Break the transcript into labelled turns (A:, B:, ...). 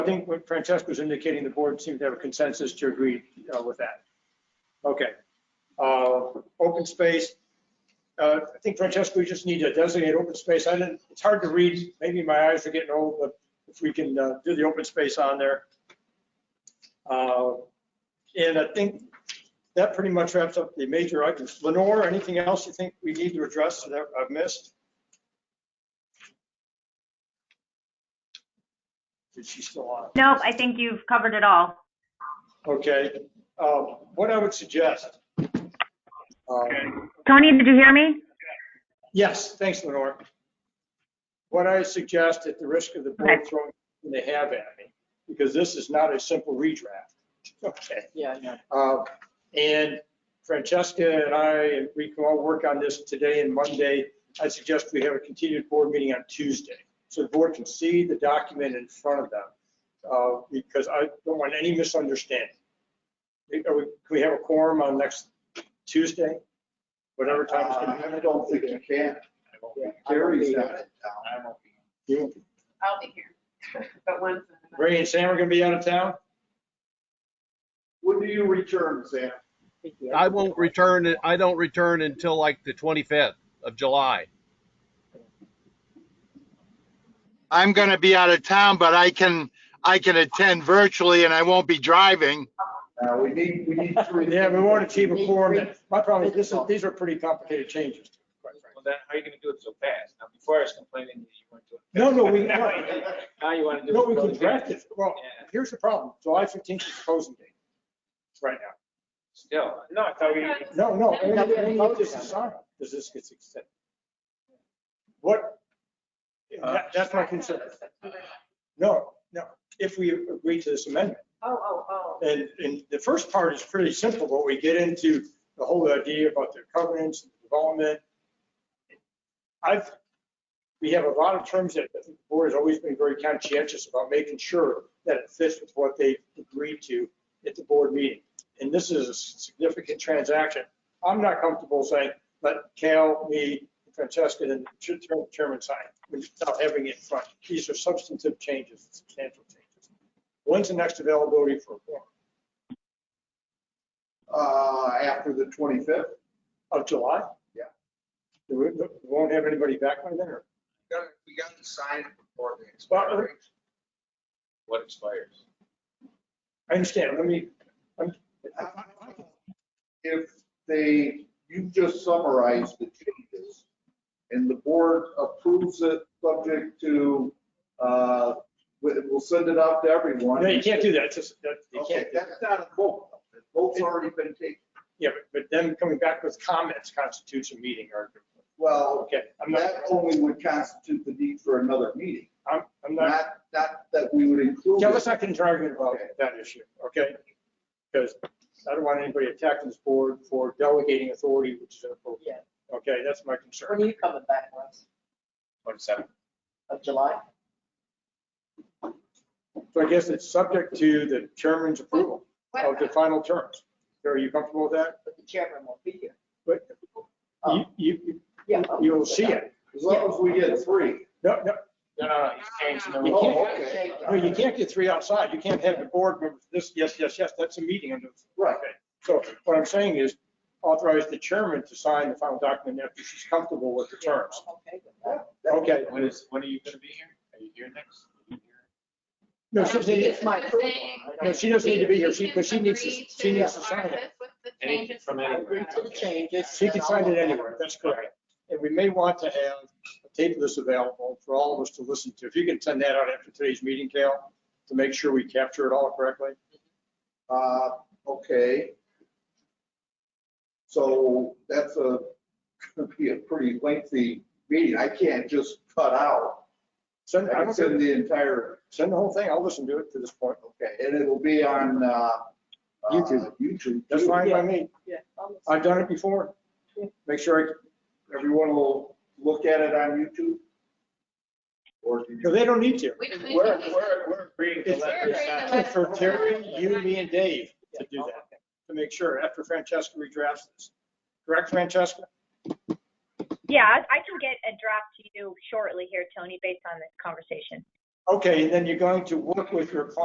A: I think what Francesca's indicating, the board seems to have a consensus to agree uh, with that. Okay. Uh, Open space, uh, I think Francesca, we just need to designate open space. I didn't, it's hard to read, maybe my eyes are getting old, but if we can uh, do the open space on there. Uh, And I think that pretty much wraps up the major items. Lenore, anything else you think we need to address that I've missed? Is she still on?
B: Nope, I think you've covered it all.
A: Okay, um, what I would suggest. um,
B: Tony, did you hear me?
A: Yes, thanks, Lenore. What I suggest at the risk of the board
B: Okay.
A: throwing what they have at me, because this is not a simple redraft. Okay.
C: Yeah, yeah.
A: Uh, And Francesca and I, and we can all work on this today and Monday. I suggest we have a continued board meeting on Tuesday, so the board can see the document in front of them, uh, because I don't want any misunderstanding. Are we- Can we have a quorum on next Tuesday? Whatever time it's gonna
D: Uh, I don't think you can. Terry's out of town.
A: be.
E: I'll be here, but once.
C: Uh,
A: Ray and Sam are gonna be out of town?
D: When do you return, Sam?
F: I won't return, I don't return until like the 25th of July.
G: I'm going to be out of town, but I can, I can attend virtually and I won't be driving.
D: Uh, we need, we need to.
A: Yeah, we won't achieve a quorum. My problem is, this is, these are pretty complicated changes. quite frankly.
H: Well, then how are you gonna do it so fast? Now, before I was complaining that you weren't doing.
A: No, no, we,
H: Now you wanna do.
A: No, we
H: can
A: could draft it. Well,
H: Yeah.
A: here's the problem. July 15th is closing date right now.
H: Still, no, I thought we.
A: No, no,
E: No, we
A: only-
C: haven't
A: only if
C: voted
A: this
C: on
A: is on, does this gets extended. What? that- That's my concern. No, no, if we agree to this amendment.
E: Oh, oh, oh.
A: And, and the first part is pretty simple, but we get into the whole idea about the covenants and development. I've, we have a lot of terms that I think the board has always been very conscientious about making sure that it fits with what they agreed to at the board meeting. And this is a significant transaction. I'm not comfortable saying, let Cal, me, Francesca, and the chairman sign without having it in front. These are substantive changes, substantial changes. When's the next availability for a forum?
D: Uh, after the twenty-fifth.
A: Of July?
D: Yeah.
A: Do We we won't have anybody back by then, or? uh,
H: We got to sign it before the
A: expires.
H: What expires?
A: I understand, let me,
D: If they, you just summarized the changes and the board approves it subject to, uh, we- we'll send it out to everyone.
A: no, you can't do that, it's just, that, you
D: Okay,
A: can't. do that.
D: that's not a vote. The vote's already been taken.
A: Yeah, but, but them coming back with comments constitutes a meeting, or,
D: Well,
A: okay, I'm not,
D: that only would constitute the need for another meeting,
A: I'm, I'm not.
D: not, not that we would include.
A: Yeah,
D: it.
A: let's not get into argument about that issue, okay? Because I don't want anybody attacking this board for delegating authority, which is inappropriate. Okay, that's my concern.
C: When are you coming back, Russ?
H: Twenty-seven.
C: Of July?
A: So I guess it's subject to the chairman's approval
E: What
C: Oh,
A: of the
E: about-
A: final terms. Are you comfortable with that? Um,
C: But the chairman won't be here.
A: But you,
C: Oh,
A: you,
C: yeah.
A: you'll see it.
D: As long as we get three.
A: No, no,
H: No, no, no, he's changing the
A: You
H: rules.
D: Oh,
A: can't-
D: okay.
A: no, you can't get three outside. You can't have the board members, this, yes, yes, yes, that's a meeting under.
D: Right.
A: So what I'm saying is authorize the chairman to sign the final document after she's comfortable with the terms.
C: Okay, with that.
A: Okay.
H: When is, when are you gonna be here? Are you here next? Are you here?
A: No, she doesn't need,
C: It's my approval. I
A: no,
C: don't-
A: she doesn't need to be here, she, but she needs, to- she needs to sign it.
H: Anything from
C: I
H: anywhere.
C: agree to the changes.
A: She can
C: and
A: sign
C: I'll-
A: it anywhere, that's correct. And we may want to have a tape of this available for all of us to listen to. If you can send that out after today's meeting, Cal, to make sure we capture it all correctly.
D: Uh, okay. So that's a, gonna be a pretty lengthy meeting. I can't just cut out.
A: Send, I
D: I can
A: don't
D: send
A: care.
D: the entire,
A: send the whole thing, I'll listen to it to this point.
D: okay, and it'll be on, uh, uh,
A: YouTube.
D: YouTube.
A: That's fine by me.
C: Yeah. I'll-
A: I've done it before. Make sure,
D: Everyone will look at it on YouTube? Or do
A: I-
D: you?
A: no, they don't need to.
E: We- we-
H: We're, we're, we're agreeing to
A: It's
H: let
E: We're
H: her
E: agreeing to
H: sign.
E: let-
A: it's for Terry, you, me, and Dave to do
C: Yeah,
A: that, to make sure after Francesca redrafts this. Correct, Francesca?
B: Yeah, I I can get a draft to you shortly here, Tony, based on this conversation.
A: Okay, and then you're going to work with your client